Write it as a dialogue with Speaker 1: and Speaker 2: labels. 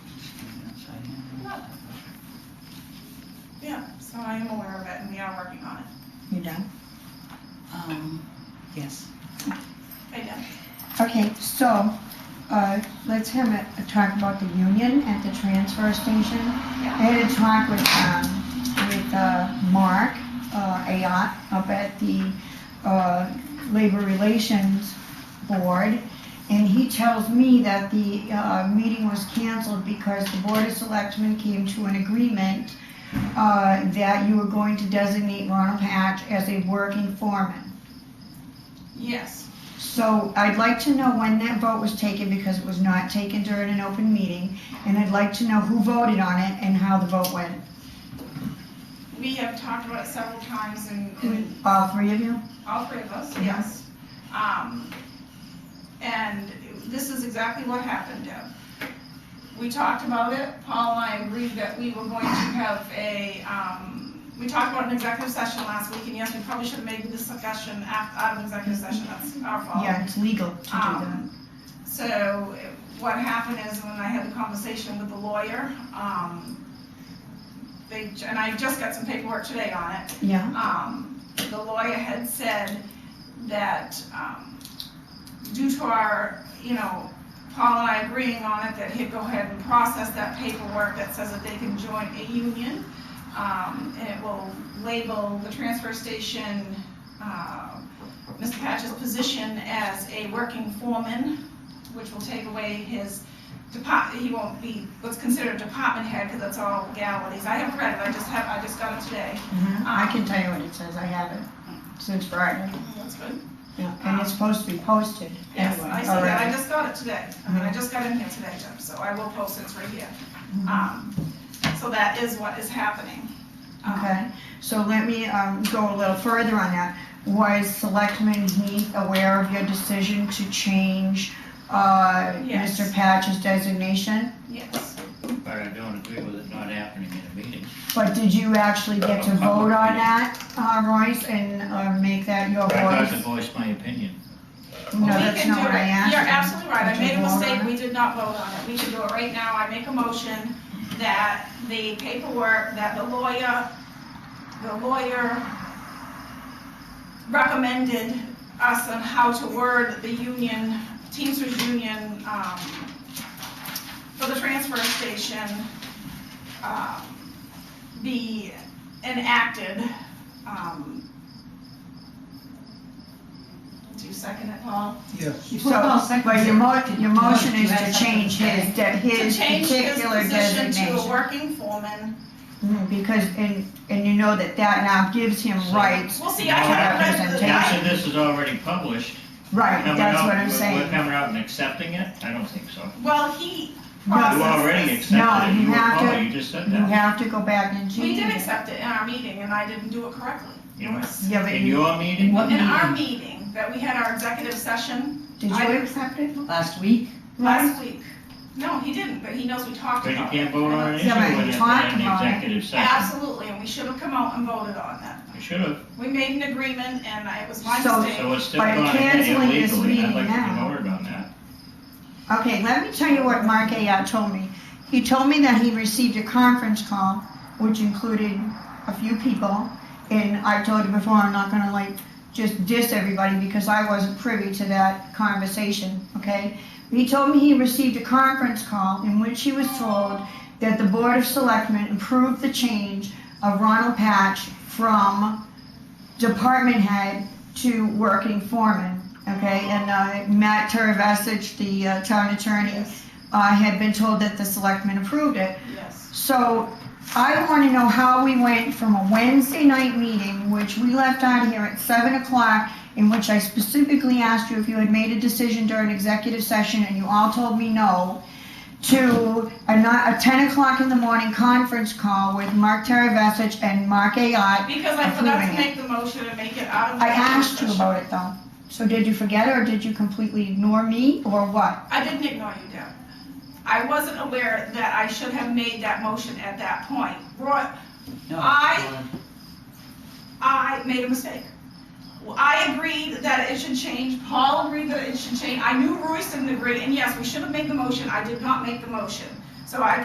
Speaker 1: So I am aware of it and we are working on it.
Speaker 2: You done?
Speaker 3: Um,
Speaker 2: Yes.
Speaker 1: I did.
Speaker 2: Okay, so, uh, let's have a, a talk about the union at the transfer station. I had a talk with, um, with, uh, Mark, uh, Ayat up at the, uh, Labor Relations Board. And he tells me that the, uh, meeting was canceled because the Board of Selectmen came to an agreement, uh, that you were going to designate Ronald Hatch as a working foreman.
Speaker 1: Yes,
Speaker 2: So I'd like to know when that vote was taken, because it was not taken during an open meeting, and I'd like to know who voted on it and how the vote went.
Speaker 1: we have talked about it several times and, and
Speaker 2: All three of you?
Speaker 1: all three of us,
Speaker 2: Yeah.
Speaker 1: Mm-hmm. yes. Um, and this is exactly what happened, Deb. We talked about it, Paul and I agreed that we were going to have a, um, we talked about an executive session last week and yes, we probably should have made the discussion af- out of executive session, that's our fault.
Speaker 2: Yeah, it's legal to do that.
Speaker 1: Um, So what happened is when I had the conversation with the lawyer, um, they, and I just got some paperwork today on it,
Speaker 2: Yeah,
Speaker 1: um, the lawyer had said that, um, due to our, you know, Paul and I agreeing on it, that he'd go ahead and process that paperwork that says that they can join a union. Um, and it will label the transfer station, uh, Mr. Patch's position as a working foreman, which will take away his depart, he won't be what's considered a department head, because that's all legalities. I haven't read it, I just have, I just got it today.
Speaker 2: mhm. I
Speaker 1: Um,
Speaker 2: can tell you what it says, I have it, since Friday.
Speaker 1: That's good.
Speaker 2: Yeah, And it's supposed to be posted
Speaker 1: Yes,
Speaker 2: anyway.
Speaker 1: I see
Speaker 2: already.
Speaker 1: that, I just got it today. I mean, I just got in here today, Deb, so I will post it right here. Um, So that is what is happening. Um,
Speaker 2: Okay, so let me um, go a little further on that. Was Selectman Heath aware of your decision to change uh,
Speaker 1: Yes.
Speaker 2: Mr. Patch's designation?
Speaker 1: Yes,
Speaker 4: But I don't agree with it not happening in a meeting.
Speaker 2: But did you actually get to vote on that, uh, Royce, and uh, make that your
Speaker 4: But I got to
Speaker 2: voice?
Speaker 4: voice my opinion.
Speaker 2: No,
Speaker 1: We
Speaker 2: that's
Speaker 1: can
Speaker 2: not
Speaker 1: do
Speaker 2: what I
Speaker 1: it.
Speaker 2: asked.
Speaker 1: You're absolutely right, I
Speaker 2: Did you
Speaker 1: made a
Speaker 2: vote on
Speaker 1: mistake,
Speaker 2: it?
Speaker 1: we did not vote on it. We should do it right now, I make a motion that the paperwork, that the lawyer, the lawyer recommended us on how to word the union, Teamsters Union, um, for the transfer station, um, be enacted, um, do you second it, Paul?
Speaker 5: Yes.
Speaker 2: So, but your mo, your motion is to change his, de-
Speaker 1: To
Speaker 2: his
Speaker 1: change his
Speaker 2: particular
Speaker 1: position to a
Speaker 2: designation.
Speaker 1: working foreman.
Speaker 2: Mm, Because, and, and you know that that now gives him
Speaker 4: So-
Speaker 2: rights,
Speaker 1: Well, see, I haven't read the,
Speaker 4: Now,
Speaker 1: I,
Speaker 2: Representation.
Speaker 4: that this is already published.
Speaker 2: right,
Speaker 4: coming
Speaker 2: that's
Speaker 4: out-
Speaker 2: what I'm
Speaker 4: we're- We're
Speaker 2: saying.
Speaker 4: coming out and accepting it? I don't think so.
Speaker 1: well, he
Speaker 2: No,
Speaker 4: You already
Speaker 1: processed this.
Speaker 2: No,
Speaker 4: accepted it,
Speaker 2: you
Speaker 4: you were
Speaker 2: have
Speaker 4: Paul,
Speaker 2: to-
Speaker 4: you just said
Speaker 2: You
Speaker 4: that.
Speaker 2: have to go back and
Speaker 1: We
Speaker 2: change
Speaker 1: did
Speaker 2: it.
Speaker 1: accept it in our meeting, and I didn't do it correctly.
Speaker 4: You know,
Speaker 2: Yeah, but
Speaker 4: In
Speaker 2: you,
Speaker 4: your meeting?
Speaker 3: What
Speaker 1: In our meeting, that we had our executive session
Speaker 2: did
Speaker 1: I-
Speaker 2: you accept it?
Speaker 3: last week,
Speaker 2: Right?
Speaker 1: last week. No, he didn't, but he knows we talked
Speaker 4: But you
Speaker 1: about it.
Speaker 4: can't vote on an issue
Speaker 2: Yeah, but you
Speaker 4: with it
Speaker 2: talked
Speaker 4: in the
Speaker 2: about it.
Speaker 4: executive session.
Speaker 1: Absolutely, and we should have come out and voted on that.
Speaker 4: You should have,
Speaker 1: We made an agreement, and I- it was my
Speaker 2: So-
Speaker 1: mistake.
Speaker 4: so it's still
Speaker 2: By
Speaker 4: going ahead
Speaker 2: canceling this
Speaker 4: illegally, I'd
Speaker 2: meeting
Speaker 4: like to be
Speaker 2: now.
Speaker 4: voted on that.
Speaker 2: Okay, let me tell you what Mark Ayat told me. He told me that he received a conference call, which included a few people, and I told you before, I'm not gonna like just diss everybody because I wasn't privy to that conversation, okay? He told me he received a conference call in which he was told that the Board of Selectmen approved the change of Ronald Patch from department head to working foreman, okay? And uh, Matt Teravasich, the uh, town attorney,
Speaker 1: Yes,
Speaker 2: uh, had been told that the selectmen approved it.
Speaker 1: yes.
Speaker 2: So I want to know how we went from a Wednesday night meeting, which we left out here at seven o'clock, in which I specifically asked you if you had made a decision during executive session, and you all told me no, to a ni- a ten o'clock in the morning conference call with Mark Teravasich and Mark Ayotte.
Speaker 1: Because I forgot to
Speaker 2: Approving
Speaker 1: make the motion and make it out of. the
Speaker 2: I asked you
Speaker 1: session.
Speaker 2: about it though. So did you forget it, or did you completely ignore me, or what?
Speaker 1: I didn't ignore you, Deb. I wasn't aware that I should have made that motion at that point. Roy,
Speaker 3: no.
Speaker 1: I- I made a mistake. Well, I agreed that it should change, Paul agreed that it should change, I knew Royce didn't agree, and yes, we should have made the motion, I did not make the motion. So I